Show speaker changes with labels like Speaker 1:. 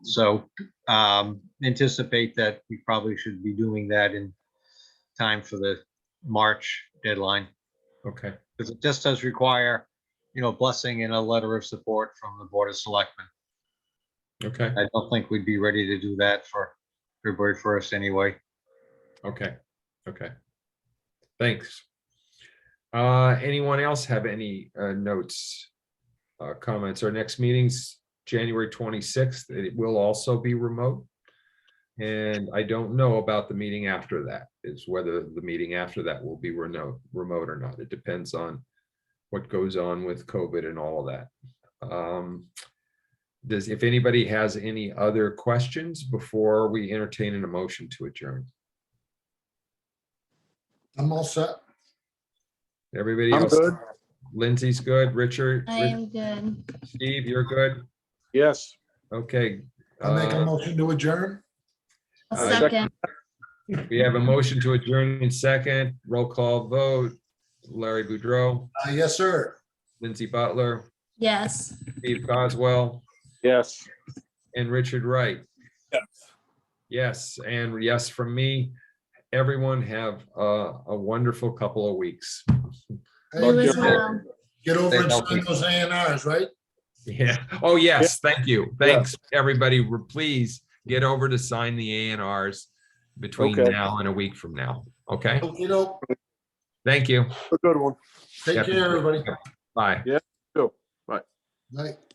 Speaker 1: So um, anticipate that we probably should be doing that in time for the March deadline.
Speaker 2: Okay,
Speaker 1: Because it just does require, you know, blessing and a letter of support from the Board of Selectmen.
Speaker 2: okay,
Speaker 1: I don't think we'd be ready to do that for February first anyway.
Speaker 2: okay, okay. Thanks. Uh, anyone else have any uh notes? Uh, comments? Our next meeting's January twenty-sixth. It will also be remote. And I don't know about the meeting after that, is whether the meeting after that will be remote, remote or not. It depends on what goes on with COVID and all of that. Um, does, if anybody has any other questions before we entertain an emotion to adjourn?
Speaker 3: I'm all set.
Speaker 2: Everybody
Speaker 4: I'm
Speaker 2: else?
Speaker 4: good.
Speaker 2: Lindsay's good, Richard,
Speaker 5: I
Speaker 2: Rich-
Speaker 5: am good.
Speaker 2: Steve, you're good,
Speaker 4: Yes.
Speaker 2: okay.
Speaker 3: I make a
Speaker 2: uh,
Speaker 3: motion to adjourn.
Speaker 5: A
Speaker 2: Uh,
Speaker 5: second,
Speaker 2: We have a motion to adjourn in second, roll call vote, Larry Boudreau,
Speaker 3: Uh, Yes, sir.
Speaker 2: Lindsay Butler,
Speaker 5: yes.
Speaker 2: Steve Coswell,
Speaker 4: Yes.
Speaker 2: and Richard Wright. Yes, and yes from me, everyone have a, a wonderful couple of weeks.
Speaker 3: Hey,
Speaker 5: You as
Speaker 4: Roger.
Speaker 5: well.
Speaker 3: Get over and
Speaker 1: Stay healthy.
Speaker 3: sign those A and Rs, right?
Speaker 2: Yeah, oh, yes, thank you, thanks, everybody, please get over to sign the ANRs between
Speaker 4: Okay.
Speaker 2: now and a week from now, okay?
Speaker 3: You know,
Speaker 2: Thank you.
Speaker 4: A good one.
Speaker 3: take
Speaker 2: Yeah.
Speaker 3: care, everybody.
Speaker 2: Bye.
Speaker 3: Night.